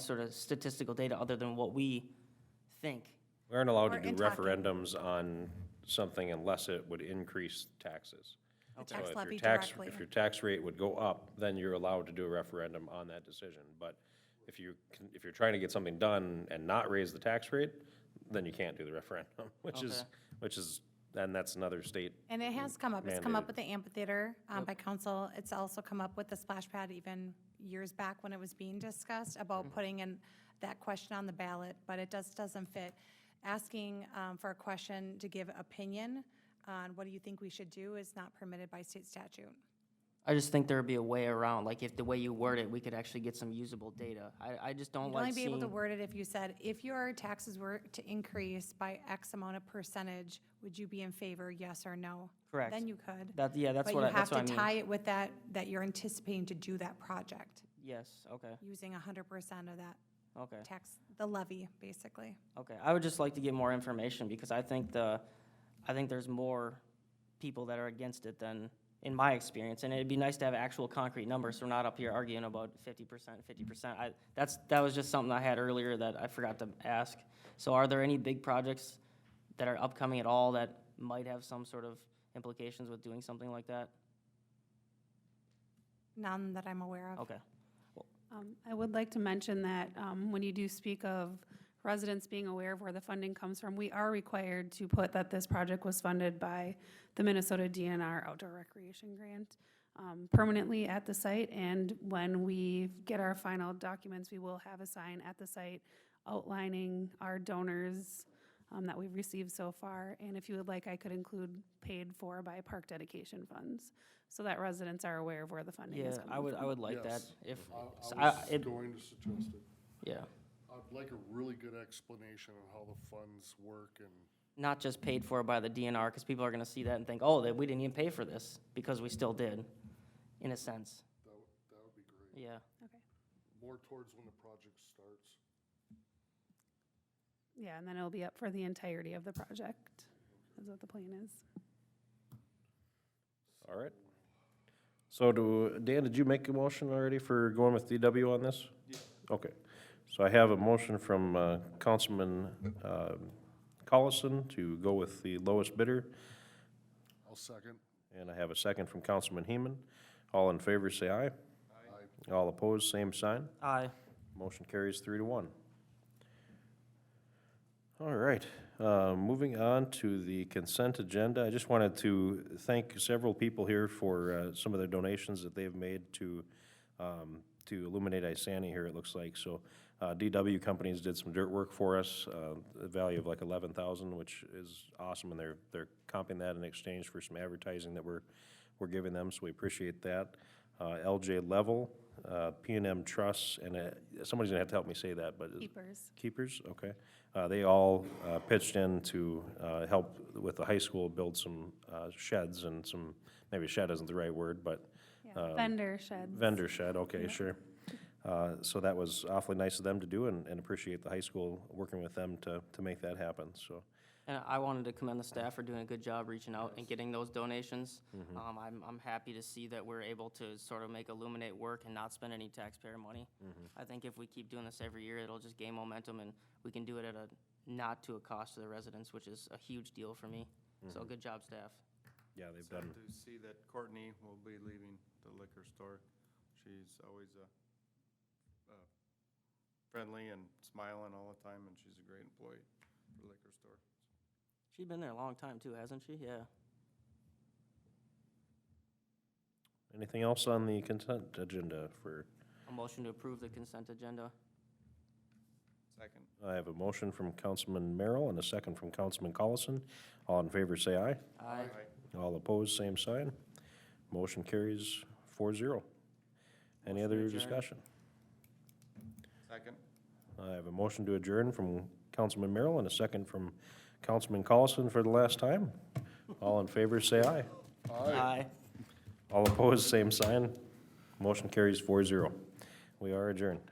sort of statistical data other than what we think. We aren't allowed to Or do in talking. referendums on something unless it would increase taxes. The So tax if your levy tax- directly. If your tax rate would go up, then you're allowed to do a referendum on that decision. But if you, can- if you're trying to get something done and not raise the tax rate, then you can't do the referendum, which is, Okay. which is, and that's another state. And it has come up, it's come mandated. up with the amphitheater um, by council, it's also come up with the splash pad even years back when it was being discussed Mm-hmm. about putting in that question on the ballot, but it just doesn't fit. Asking um, for a question to give opinion on what do you think we should do is not permitted by state statute. I just think there'd be a way around, like if the way you word it, we could actually get some usable data. I, I just don't You'd only like be able to seeing, word it if you said, if your taxes were to increase by X amount of percentage, would you be in favor, yes or no? Correct. Then you could. that, yeah, that's what, I- that's what But you have to I tie mean. it with that, that you're anticipating to do that project, Yes, okay, using hundred percent of that okay. tax, the levy, basically. Okay, I would just like to get more information because I think the, I think there's more people that are against it than, in my experience, and it'd be nice to have actual concrete numbers, so we're not up here arguing about fifty percent, fifty percent. I, that's, that was just something I had earlier that I forgot to ask. So are there any big projects that are upcoming at all that might have some sort of implications with doing something like that? None that I'm aware of. Okay, Um, I would like to mention that um, when you do speak of residents being aware of where the funding comes from, we are required to put that this project was funded by the Minnesota DNR Outdoor Recreation Grant um, permanently at the site. And when we get our final documents, we will have a sign at the site outlining our donors um, that we've received so far. And if you would like, I could include paid for by park dedication funds, so that residents are aware of where the funding yeah, is coming from. I would, I would like that Yes. if, I- so I I- was it- going to suggest it. yeah. I'd like a really good explanation on how the funds work and, not just paid for by the DNR, because people are gonna see that and think, oh, that we didn't even pay for this, because we still did, in a sense. that would, that would be great. Yeah, More towards when the project starts. Yeah, and then it'll be up for the entirety of the project, is what the plan is. All right. So do, Dan, did you make a motion already for going with DW on this? Yeah. Okay. So I have a motion from uh, Councilman um, Collison to go with the lowest bidder, I'll second. and I have a second from Councilman Heeman. All in favor, say aye. Aye. All opposed, same sign. aye. Motion carries three to one. All right, uh, moving on to the consent agenda. I just wanted to thank several people here for uh, some of their donations that they've made to, um, to illuminate Isani here, it looks like. So uh, DW Companies did some dirt work for us, uh, the value of like 11,000, which is awesome, and they're, they're comping that in exchange for some advertising that we're, we're giving them, so we appreciate that. Uh, LJ Level, uh, p and M Trust, and uh, somebody's gonna have to help me say that, but. Keepers. Keepers, okay. Uh, They all uh, pitched in to uh, help with the high school build some uh, sheds and some, maybe shed isn't the right word, but uh, Yeah, Vendor sheds. vendor shed, okay, sure. Uh, So that was awfully nice of them to do and and appreciate the high school working with them to, to make that happen, so. And I wanted to commend the staff for doing a good job reaching out and getting those donations. Mm-hmm. Um, I'm, I'm happy to see that we're able to sort of make Illuminate work and not spend any taxpayer money. Mm-hmm. I think if we keep doing this every year, it'll just gain momentum, and we can do it at a, not to a cost to the residents, which is a huge deal for me. So Mm-hmm. good job, staff. Yeah, they've Sad done, to see that Courtney will be leaving the liquor store. She's always uh, uh, friendly and smiling all the time, and she's a great employee for the liquor store. She's been there a long time too, hasn't she? Yeah. anything else on the consent agenda for, A motion to approve the consent agenda. Second. I have a motion from Councilman Merrill and a second from Councilman Collison. All in favor, say aye. Aye. All opposed, same sign. Motion carries four zero. Any Motion to other adjourn. discussion? Second. I have a motion to adjourn from Councilman Merrill and a second from Councilman Collison for the last time. All in favor, say aye. Aye. All opposed, same sign. Motion carries four zero. We are adjourned.